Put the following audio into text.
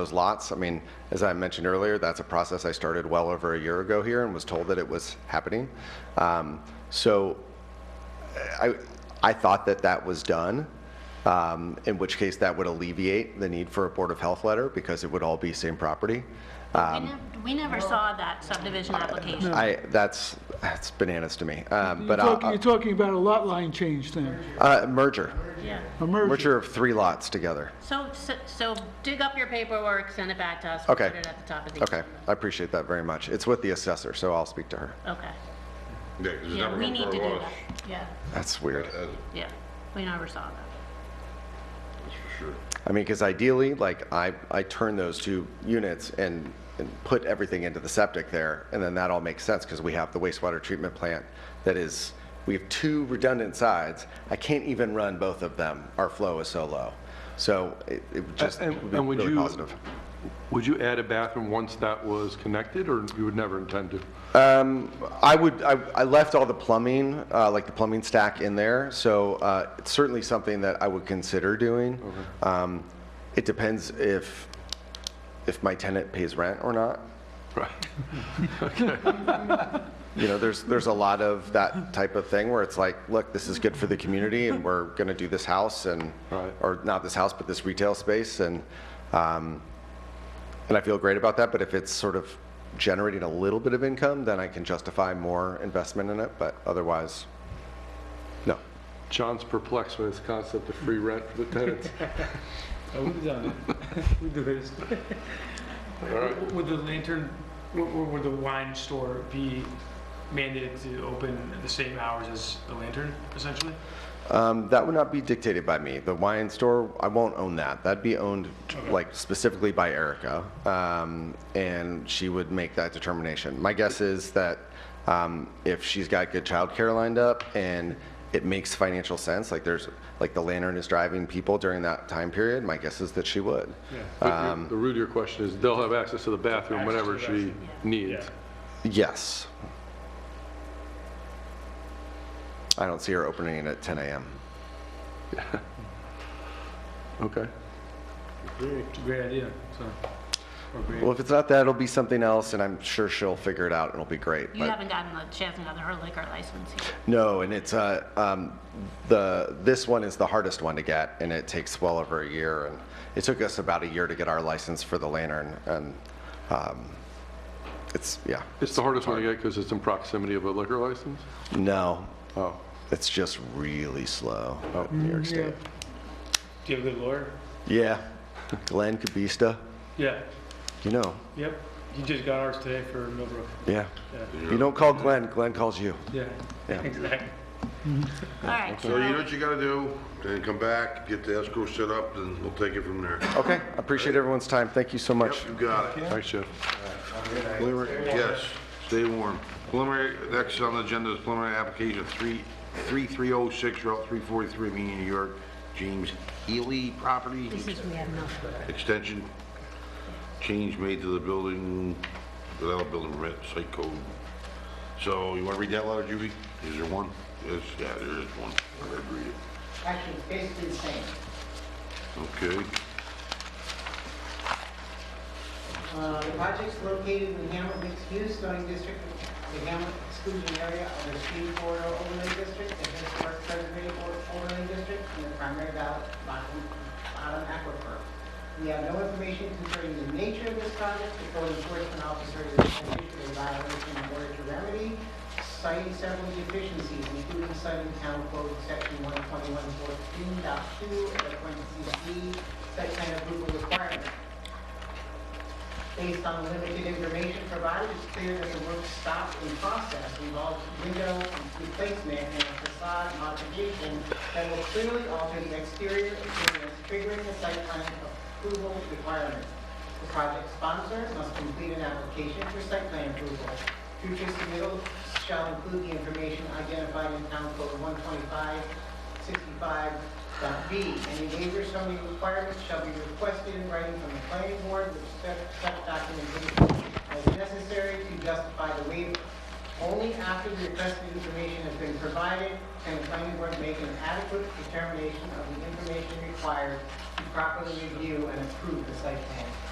those lots. I mean, as I mentioned earlier, that's a process I started well over a year ago here and was told that it was happening. Um, So I, I thought that that was done, um, in which case that would alleviate the need for a Board of Health letter because it would all be same property. We Um, nev- We never saw that subdivision application. I, that's, that's bananas to me. Um, You're But talking, I, you're talking about a lot line change then, uh, merger, Yeah. a merger. merger of three lots together. So, so- so dig up your paperwork, send it back to us. We'll Okay. Put it at the top of the. Okay, I appreciate that very much. It's with the assessor, so I'll speak to her. Okay. Yeah, 'cause it's Yeah, never we gonna need to grow do us, that. Yeah, That's weird. yeah. We never saw that. That's for sure. I mean, because ideally, like, I, I turn those two units and, and put everything into the septic there, and then that all makes sense, because we have the wastewater treatment plant that is, we have two redundant sides. I can't even run both of them. Our flow is so low. So it, it would just And- would be and would really you- positive. Would you add a bathroom once that was connected, or you would never intend to? I would, I, I left all the plumbing, uh, like the plumbing stack in there, so, uh, it's certainly something that I would consider doing. Um, it depends if, if my tenant pays rent or not. Right. You know, there's, there's a lot of that type of thing where it's like, look, this is good for the community and we're going to do this house and, Right. or not this house, but this retail space and, um, and I feel great about that, but if it's sort of generating a little bit of income, then I can justify more investment in it, but otherwise, no. John's perplexed with this concept of free rent for the tenants. I would have Oh, done it. We do this. Would the lantern, or would the wine store be mandated to open at the same hours as the lantern, essentially? Um, That would not be dictated by me. The wine store, I won't own that. That'd be owned like specifically by Erica, um, and she would make that determination. My guess is that um, if she's got good childcare lined up and it makes financial sense, like there's like the lantern is driving people during that time period, my guess is that she would. But your- The root of your question is, they'll have access to the bathroom whenever Um, Access to the she needs. Yes. I don't see her opening it at 10 a.m. Okay. It's a great idea, so. or great- Well, if it's not that, it'll be something else, and I'm sure she'll figure it out and it'll be great. You but- haven't gotten the, she hasn't gotten her liquor license yet. No, and it's, uh, um, the, this one is the hardest one to get, and it takes well over a year, and it took us about a year to get our license for the lantern, and, um, it's, yeah, It's the hardest one to get because it's in proximity of a liquor license? no, Oh, it's just really slow up in New York State. Do you have a good lawyer? Yeah, Glenn Kabista, Yeah, you know, yep. He just got ours today for Millbrook. yeah. Yeah, You don't call Glenn, Glenn calls you. yeah, Yeah. exactly. All right. So you know what you gotta do, and come back, get the escrow set up, and we'll take it from there. Okay, I appreciate everyone's time, thank you so much. Yep, you got it. thanks, Jeff. Preliminary- Yes, stay warm. Preliminary, next on the agenda is preliminary application three, three three oh six Route three forty-three, Meeting, New York, James Healy property, This is, we have no. extension, change made to the building, without a building permit, site code. So you wanna read that letter, Judy? Is there one? Yes, yeah, there is one. I'm gonna read it. Actually, it's basically the same. Okay, Uh, The project's located in the Hamlet Mixed Use Zoning District, the Hamlet exclusion area of the Stream Corridor Overlay District, the Historic Preservation Overlay District, and the primary ballot bottom bottom aquifer. We have no information concerning the nature of this project, the code enforcement officer is attending to the violation in order to remedy, citing several deficiencies, including citing town code section 121.14.2 and twenty D, site plan approval requirement. Based on the limited information provided, it's clear that the work stopped in process involves window replacement and a facade modification that will clearly alter the exterior appearance, triggering the site plan approval requirement. The project sponsor must complete an application for site plan approval. Future submittals shall include the information identified in Town Code 125 65.b, any waiver zoning requirements shall be requested in writing from the planning board with such such documentation as necessary to justify the waiver. Only after the requested information has been provided can the planning board make an adequate determination of the information required to properly review and approve the site plan.